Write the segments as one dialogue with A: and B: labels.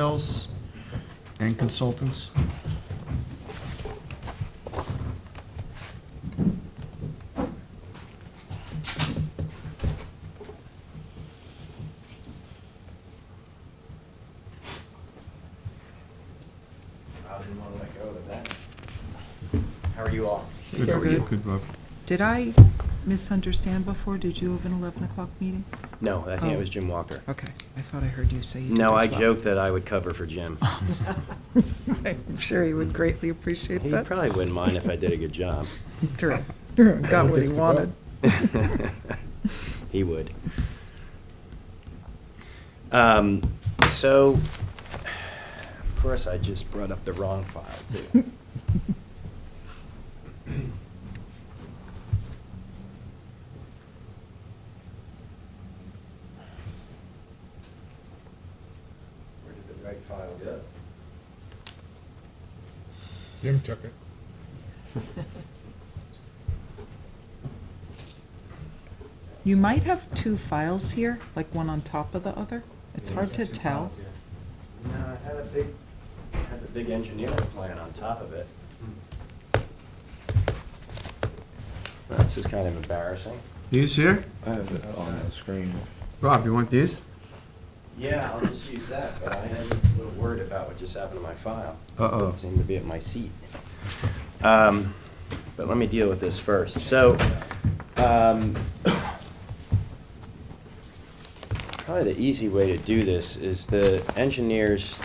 A: Hills and Consultants.
B: I didn't want to let go of that. How are you all?
A: Good,
C: how are you?
A: Good, Rob.
C: Did I misunderstand before? Did you have an 11 o'clock meeting?
B: No, I think it
C: Oh.
B: was Jim Walker.
C: Okay, I thought I heard you say you did
B: No, I
C: as well.
B: joked that I would cover for Jim.
C: I'm sure he would greatly appreciate
B: He
C: that.
B: probably wouldn't mind if I did a good job.
C: True. Got what
D: gets
C: he
D: to go.
C: wanted.
B: He would. Um, So, of course, I just brought up the wrong file, too. Where did the right file go?
D: Jim took it.
C: You might have two files here, like one on top of the other. It's hard to tell.
B: No, I had a big, I had the big engineering plan on top of it. This is kind of embarrassing.
A: These here?
E: I have it on the screen.
A: Rob, you want these?
B: Yeah, I'll just use that, but I am a little worried about what just happened to my file.
A: Uh-oh.
B: It seemed to be at my seat. Um, But let me deal with this first. So, um, probably the easy way to do this is the engineers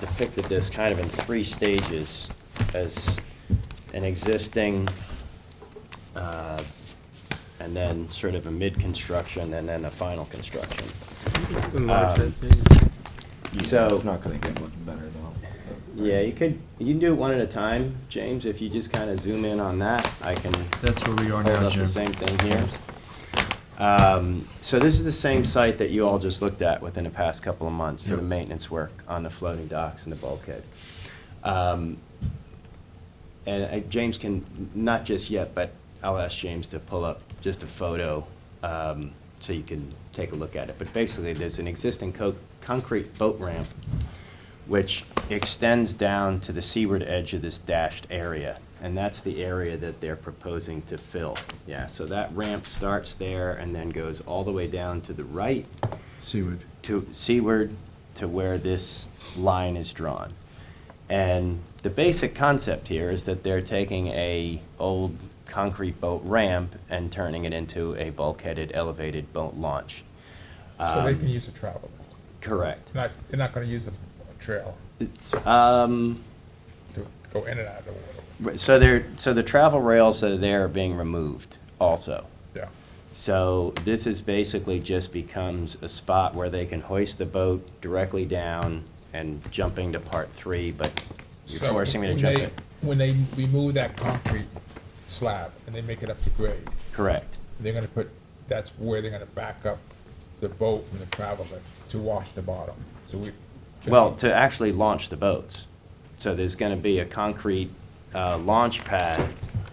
B: depicted this kind of in three stages as an existing, uh, and then sort of a mid-construction, and then a final construction. Um, So-
E: It's not gonna get much better though.
B: Yeah, you could, you can do it one at a time, James, if you just kind of zoom in on that, I can
A: That's where we are
B: hold
A: now,
B: up
A: Jim.
B: the same thing here. Um, So this is the same site that you all just looked at within the past couple of months for the
A: Yep.
B: maintenance work on the floating docks and the bulkhead. Um, And uh, James can, not just yet, but I'll ask James to pull up just a photo um, so you can take a look at it. But basically, there's an existing co- concrete boat ramp which extends down to the seaward edge of this dashed area. And that's the area that they're proposing to fill. Yeah, so that ramp starts there and then goes all the way down to the right
A: Seaward.
B: to seaward to where this line is drawn. And the basic concept here is that they're taking a old concrete boat ramp and turning it into a bulkheaded elevated boat launch.
D: So they
B: Um,
D: can use a travel lift.
B: Correct.
D: They're Not, they're not gonna use a a trail
B: It's, um,
D: to go in and out of the water,
B: Right, So there, so the travel rails that are there are being removed also.
D: yeah.
B: So this is basically just becomes a spot where they can hoist the boat directly down and jumping to part three, but you're
D: So
B: forcing me to
D: when
B: jump
D: they-
B: it.
D: When they remove that concrete slab and they make it up to grade,
B: Correct,
D: they're gonna put, that's where they're gonna back up the boat from the travel lift to wash the bottom, so we.
B: well, to actually launch the boats. So there's gonna be a concrete, uh, launch pad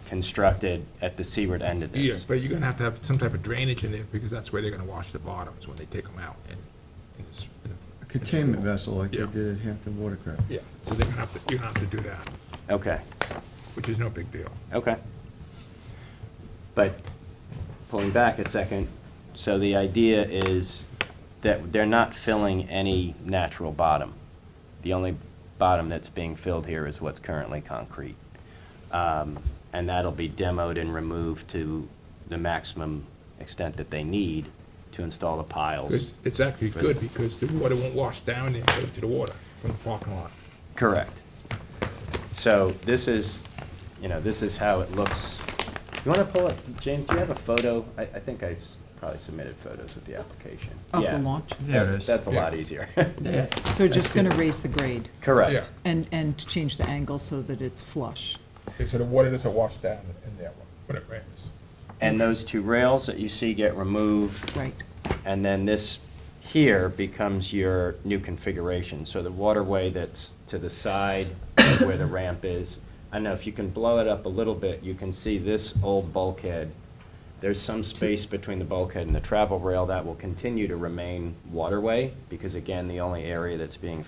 B: constructed at the seaward end of
D: Yeah,
B: this.
D: but you're gonna have to have some type of drainage in there, because that's where they're gonna wash the bottoms when they take them out and. and it's- and-
A: A containment vessel like they
D: Yeah.
A: did at Hampton Watercraft.
D: Yeah, so they're gonna have to, you're gonna have to do that,
B: Okay.
D: which is no big deal.
B: Okay. But pulling back a second, so the idea is that they're not filling any natural bottom. The only bottom that's being filled here is what's currently concrete. Um, And that'll be demoed and removed to the maximum extent that they need to install the
D: It's,
B: piles.
D: it's actually good because the water won't wash down and go into the water from the parking lot.
B: Correct. So this is, you know, this is how it looks. You want to pull up, James, do you have a photo? I, I think I s- probably submitted photos with the application.
C: Of the
B: Yeah.
C: launch?
A: There it
B: That's-
A: is.
B: That's a
D: Yeah.
B: lot easier.
C: So just going to raise the grade
B: Correct.
C: and, and change the angle so that it's flush.
D: Yeah, so the water doesn't wash down in there when it rains.
B: And those two rails that you see get removed,
C: Right.
B: and then this here becomes your new configuration. So the waterway that's to the side of where the ramp is, I know if you can blow it up a little bit, you can see this old bulkhead. There's some space between the bulkhead and the travel rail that will continue to remain waterway, because again, the only area that's being